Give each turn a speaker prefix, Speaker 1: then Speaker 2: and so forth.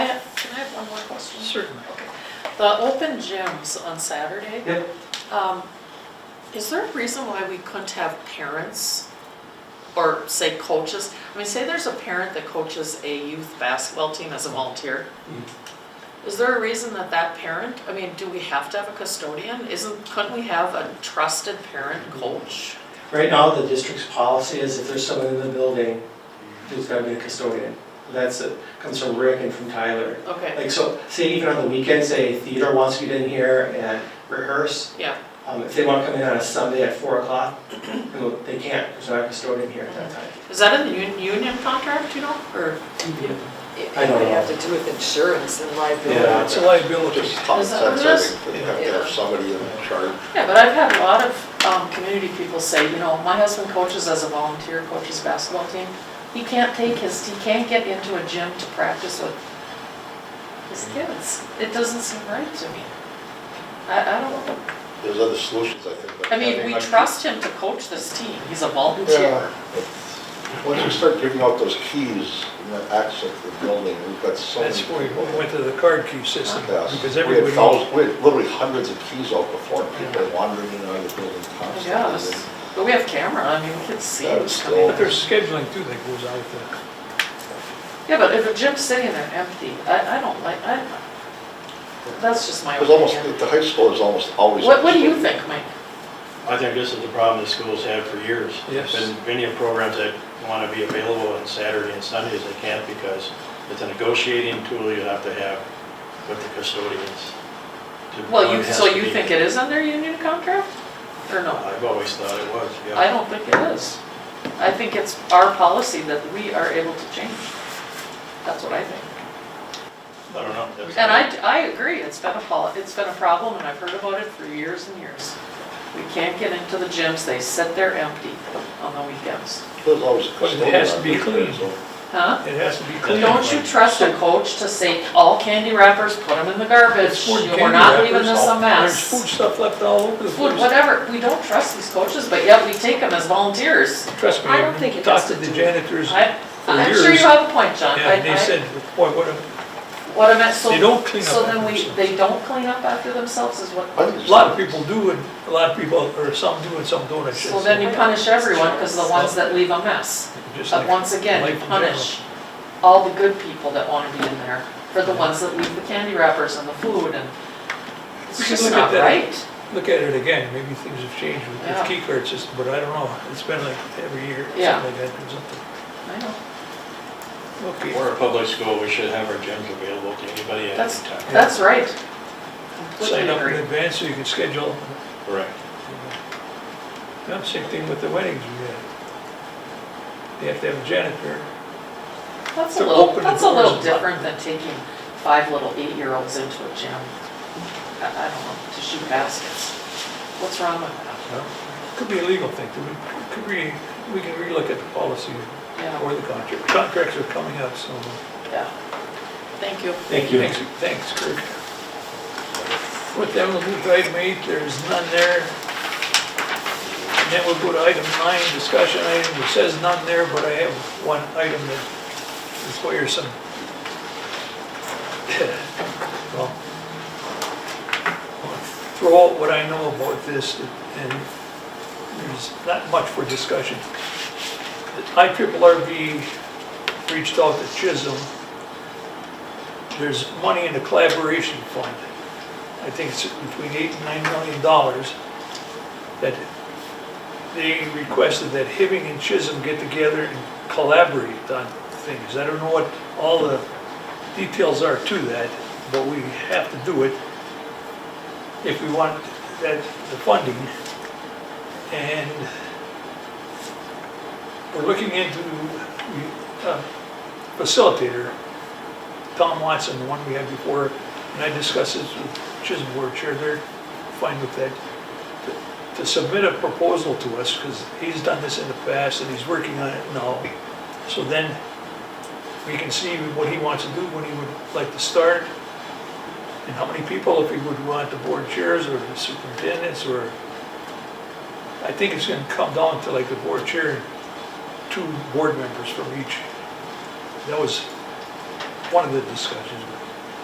Speaker 1: Certainly.
Speaker 2: The open gyms on Saturday,
Speaker 1: Yep.
Speaker 2: um, is there a reason why we couldn't have parents or say coaches? I mean, say there's a parent that coaches a youth basketball team as a volunteer. Is there a reason that that parent, I mean, do we have to have a custodian? Isn't, couldn't we have a trusted parent coach?
Speaker 3: Right now, the district's policy is if there's someone in the building, there's gotta be a custodian. That's, it comes from Rick and from Tyler.
Speaker 2: Okay,
Speaker 3: Like, so, say even on the weekends, say theater wants to get in here and rehearse,
Speaker 2: yeah,
Speaker 3: um, if they wanna come in on a Sunday at four o'clock, you know, they can't, there's not a custodian here at that time.
Speaker 2: is that in the un- union contract, you know, or?
Speaker 4: It
Speaker 3: I don't
Speaker 4: would
Speaker 3: know.
Speaker 4: have to do with insurance and
Speaker 3: Yeah.
Speaker 4: liability.
Speaker 5: It's a liability.
Speaker 6: Just common
Speaker 2: Is that-
Speaker 6: sense, I think, you have to have somebody in charge.
Speaker 2: Yeah, but I've had a lot of um, community people say, you know, my husband coaches as a volunteer, coaches basketball team. He can't take his, he can't get into a gym to practice with his kids. It doesn't seem right to me. I, I don't know.
Speaker 6: There's other solutions, I think. but
Speaker 2: I mean, we
Speaker 6: having-
Speaker 2: trust him to coach this team. He's a
Speaker 6: Yeah.
Speaker 2: volunteer.
Speaker 6: but Once you start giving out those keys and that access to the building, we've got so many
Speaker 5: That's why
Speaker 6: people.
Speaker 5: we went to the card key system,
Speaker 6: Yes.
Speaker 5: because
Speaker 6: We had
Speaker 5: everybody,
Speaker 6: thousands, we had literally hundreds of keys out before, people wandering in and out of the building
Speaker 2: I
Speaker 6: constantly.
Speaker 2: guess. But we have camera, I mean, we can see
Speaker 6: Yeah,
Speaker 2: who's
Speaker 6: it's
Speaker 2: coming.
Speaker 5: but there's scheduling too that goes out there.
Speaker 2: Yeah, but if a gym's sitting there empty, I, I don't like, I, that's just my
Speaker 6: It was almost,
Speaker 2: opinion.
Speaker 6: the high school is almost always.
Speaker 2: What, what do you think, Mike?
Speaker 7: I think this is the problem the schools have for years.
Speaker 5: Yes.
Speaker 7: There's been many programs that want to be available on Saturday and Sundays, they can't because it's a negotiating tool you have to have with the custodians. to-
Speaker 2: Well, you,
Speaker 7: it has
Speaker 2: so
Speaker 7: to
Speaker 2: you
Speaker 7: be-
Speaker 2: think it is under union contract, or no?
Speaker 7: I've always thought it was, yeah.
Speaker 2: I don't think it is. I think it's our policy that we are able to change. That's what I think.
Speaker 7: I don't know. That's-
Speaker 2: And I, I agree, it's been a, pol- it's been a problem, and I've heard about it for years and years. We can't get into the gyms, they sit there empty on the weekends.
Speaker 6: There's always a
Speaker 5: But it
Speaker 6: custodian.
Speaker 5: has to be
Speaker 6: out there,
Speaker 5: clean.
Speaker 6: so-
Speaker 2: Huh?
Speaker 5: It has to be clean.
Speaker 2: Don't you trust a coach to say, all candy wrappers, put them in the garbage,
Speaker 5: There's food
Speaker 2: we're
Speaker 5: candy
Speaker 2: not leaving
Speaker 5: wrappers,
Speaker 2: this
Speaker 5: all-
Speaker 2: a mess.
Speaker 5: There's food stuff left all over the
Speaker 2: Food,
Speaker 5: place.
Speaker 2: whatever, we don't trust these coaches, but yet we take them as volunteers.
Speaker 5: Trust me,
Speaker 4: I don't think
Speaker 5: I've
Speaker 4: it
Speaker 5: talked
Speaker 4: has
Speaker 5: to
Speaker 4: to
Speaker 5: the
Speaker 4: do-
Speaker 5: janitors,
Speaker 2: I,
Speaker 5: For
Speaker 2: I'm sure you
Speaker 5: years.
Speaker 2: have a point, John. I-
Speaker 5: and they
Speaker 2: I-
Speaker 5: said, boy, what a,
Speaker 2: What I meant, so.
Speaker 5: They don't clean
Speaker 2: So
Speaker 5: up
Speaker 2: then
Speaker 5: after
Speaker 2: we,
Speaker 5: themselves.
Speaker 2: they don't clean up after themselves is what,
Speaker 6: I think
Speaker 5: a lot of people do, and a lot of people, or some do and some don't, I should
Speaker 2: so then you
Speaker 5: say.
Speaker 2: punish everyone because the ones that leave a mess.
Speaker 5: Just
Speaker 2: But
Speaker 5: like
Speaker 2: once again,
Speaker 5: life
Speaker 2: you
Speaker 5: in general.
Speaker 2: punish all the good people that want to be in there for the ones that leave the candy wrappers and the food and
Speaker 5: We
Speaker 2: it's
Speaker 5: should
Speaker 2: just
Speaker 5: look
Speaker 2: not
Speaker 5: at that.
Speaker 2: right.
Speaker 5: Look at it again, maybe things have changed with
Speaker 2: Yeah.
Speaker 5: the key card system, but I don't know, it's been like every year, something
Speaker 2: Yeah.
Speaker 5: like that or something.
Speaker 2: I know.
Speaker 5: Okay.
Speaker 7: We're a public school, we should have our gyms available to anybody at any
Speaker 2: That's,
Speaker 7: time.
Speaker 2: that's right. Completely
Speaker 5: sign up in
Speaker 2: agree.
Speaker 5: advance so you can schedule.
Speaker 7: Correct.
Speaker 5: Yeah, same thing with the weddings we had. They have to have a janitor.
Speaker 2: That's a
Speaker 5: to
Speaker 2: little,
Speaker 5: open the
Speaker 2: that's a little
Speaker 5: doors.
Speaker 2: different than taking five little eight-year-olds into a gym. I, I don't know, to shoot baskets. What's wrong with that?
Speaker 5: you know? Could be a legal thing, too. We- could we, we can relook at the policy
Speaker 2: Yeah,
Speaker 5: or the contract. Contracts are coming up, so.
Speaker 2: yeah. Thank you.
Speaker 3: Thank you.
Speaker 5: Thanks, thanks, Kurt. With that, we'll move to item eight, there's none there. And then we'll go to item nine, discussion item, it says none there, but I have one item that requires some. Well, I'll Throw out what I know about this, and there's not much for discussion. The IRRB reached out to Chisholm there's money in the collaboration fund. I think it's between eight and nine million dollars that they requested that Hibbing and Chisholm get together and collaborate on things. I don't know what all the details are to that, but we have to do it if we want that, the funding. And we're looking into uh, facilitator Tom Watson, the one we had before, and I discussed this with Chisholm Board Chair, they're fine with that. to- To submit a proposal to us, because he's done this in the past and he's working on it now. So then we can see what he wants to do, when he would like to start, and how many people, if he would want the board chairs or the superintendents or... I think it's gonna come down to like the board chair, and two board members from each. That was one of the discussions, but